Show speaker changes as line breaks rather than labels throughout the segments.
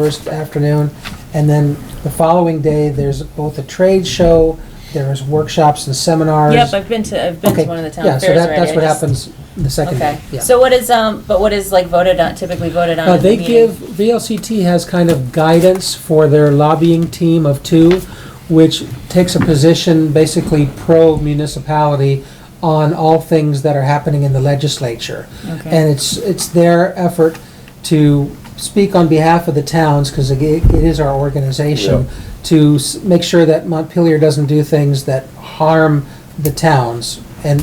first afternoon, and then the following day, there's both a trade show, there's workshops and seminars.
Yep, I've been to, I've been
Okay,
to one of the town
yeah,
fairs
so that,
already.
that's
I
what
just-
happens the second day,
Okay,
yeah.
so what is, um, but what is like voted on, typically voted on
Uh,
at the
they
meeting?
give, VLCT has kind of guidance for their lobbying team of two, which takes a position basically pro-municipality on all things that are happening in the legislature.
Okay.
And it's, it's their effort to speak on behalf of the towns, because it it is our organization, to s- make sure that Montpelier doesn't do things that harm the towns and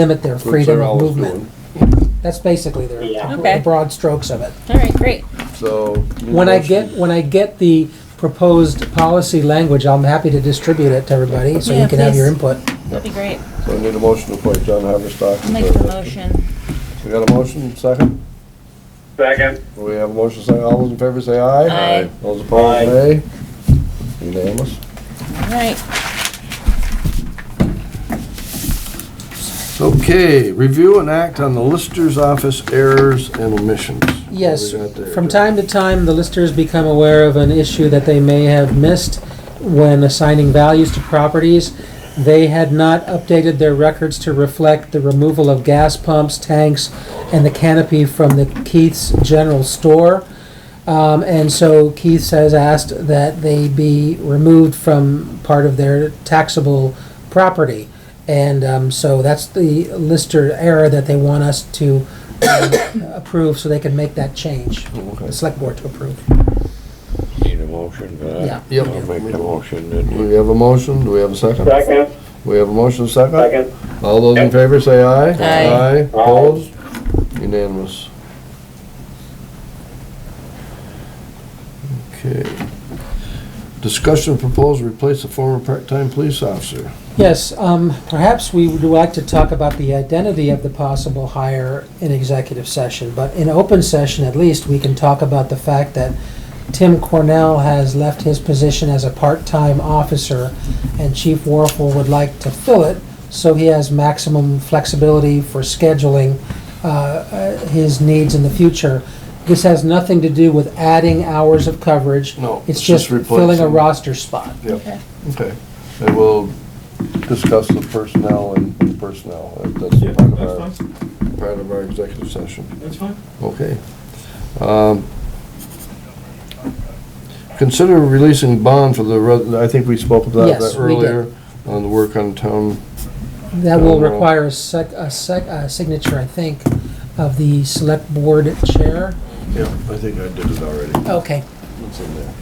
limit their
Which
freedom
they're
of
always
movement.
doing.
That's basically their,
Yeah.
the
Okay.
broad strokes of it.
Mm-hmm.
All right, great.
So.
When I get, when I get the proposed policy language, I'm happy to distribute it to everybody, so
Yeah,
you can have your
please.
input.
That'd be great.
So I need a motion to appoint John Haverstock.
I'll make the motion.
We got a motion, second?
Second.
We have a motion, second. All those in favor say aye.
Aye.
Those
Aye.
opposed, nay. Unanimous.
All right.
Okay, review and act on the Lister's office errors and omissions.
Yes,
What we got there,
from
Jeff?
time to time, the listers become aware of an issue that they may have missed when assigning values to properties. They had not updated their records to reflect the removal of gas pumps, tanks, and the canopy from the Keith's General Store. Um, and so Keith's has asked that they be removed from part of their taxable property. And, um, so that's the lister error that they want us to approve, so they can make that change.
Okay.
The select board to approve.
Need a motion for that?
Yeah.
Yep.
I'll make the motion that
Do
we,
we have a motion? Do we have a second?
Second.
We have a motion, second?
Second.
All those in
Yep.
favor say aye.
Aye.
Opposed? Unanimous. Okay. Discussion proposal to replace a former part-time police officer.
Yes, um, perhaps we would like to talk about the identity of the possible hire in executive session, but in open session at least, we can talk about the fact that Tim Cornell has left his position as a part-time officer, and Chief Warfel would like to fill it, so he has maximum flexibility for scheduling uh, uh, his needs in the future. This has nothing to do with adding hours of coverage.
No,
It's
it's just
just filling a
replacing-
roster spot.
Yep. Okay. And we'll discuss the personnel and personnel. That's
Yeah,
part of
that's
our, part of our executive session.
That's fine.
Okay. Um, Consider releasing bond for the, res- I think we spoke about
Yes,
that
we did.
earlier, on the work on town.
That will
Overall.
require a sec, a sec, a signature, I think, of the select board chair.
Yeah, I think I did it already.
Okay,
It's in there.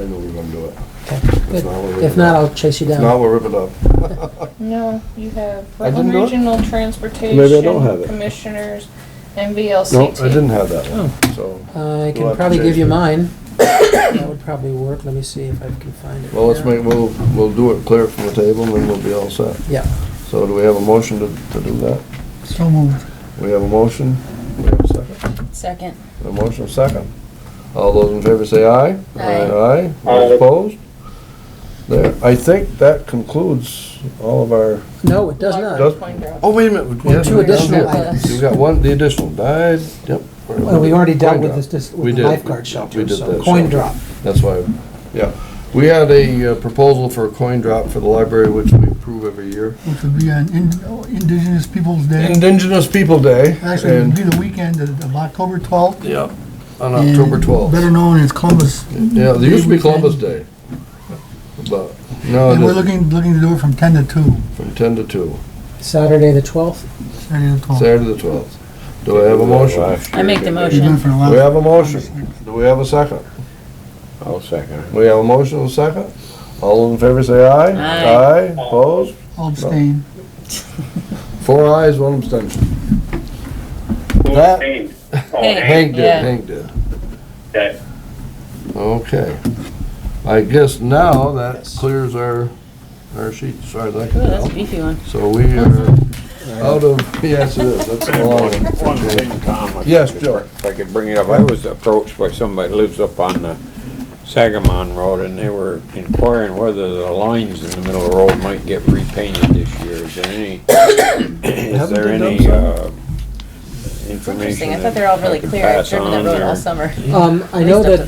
I know we're gonna do it.
okay,
If
good.
not, we'll rip
If
it
not,
up.
I'll chase you
If not,
down.
we'll rip it up.
No, you have
I didn't
Rutland
know it?
Regional Transportation.
Maybe I don't have it.
Commissioners and
No, I
VLCT.
didn't have that
Oh.
one, so,
I
We'll
can
have to
probably
change
give you
that.
mine. That would probably work. Let me see if I can find it.
well, let's
now.
make, we'll, we'll do it clear from the table and then we'll be all set.
Yeah.
So do we have a motion to, to do that?
So moved.
We have a motion, we have a second,
Second.
a motion, a second. All those in favor say aye.
Aye.
Aye,
Aye.
those opposed? There, I think that concludes all of our,
No, it does
Does-
not.
oh, wait a minute.
Well,
yes,
two
we got
additional
one.
items.
We've got one, the additional died, yep.
Well, we already dealt with
Coin
this,
drop.
this,
We
with the
did.
lifeguard
We
shelter,
did
so
that
coin
shelter.
drop.
That's why, yeah. We had a uh, proposal for a coin drop for the library, which we approve every year.
which would be on In- Indigenous Peoples' Day.
Indigenous People Day.
Actually, it would
and-
be the weekend of of October 12th.
Yeah, on October
and Better
12th.
known as Columbus.
Yeah, there used to be
Day
Columbus
weekend.
Day. But, no,
And we're
it
looking, looking to do it from 10 to 2,
is from 10 to 2,
Saturday, the twelfth.
Saturday to 12.
Saturday the 12th. Do I have a motion?
Last
I make the
year,
We've been
motion.
for the last-
We have a motion. Do we have a second?
I'll second it.
We have a motion and a second. All in favor say aye.
Aye.
Aye, opposed?
All abstain.
Four ayes, one abstention. That-
Hey.
Hank did,
Yeah.
Hank did.
Okay.
Okay. I guess now that clears our, our sheet, sorry, that
Ooh, that's a
can
beefy one.
So we are out of, yes, it is, that's a long one.
One thing, Tom, I
Yes, Joe.
If I could bring it up, I was approached by somebody that lives up on the Sagamon Road, and they were inquiring whether the lines in the middle of the road might get repainted this year. Is there any, is
Haven't
there
they done
any,
some?
uh, information.
Interesting, I
that
thought they were all really
I could
clear. I've
pass
driven
on
that road
or-
all summer.
Um, I
At
know
least up
that
to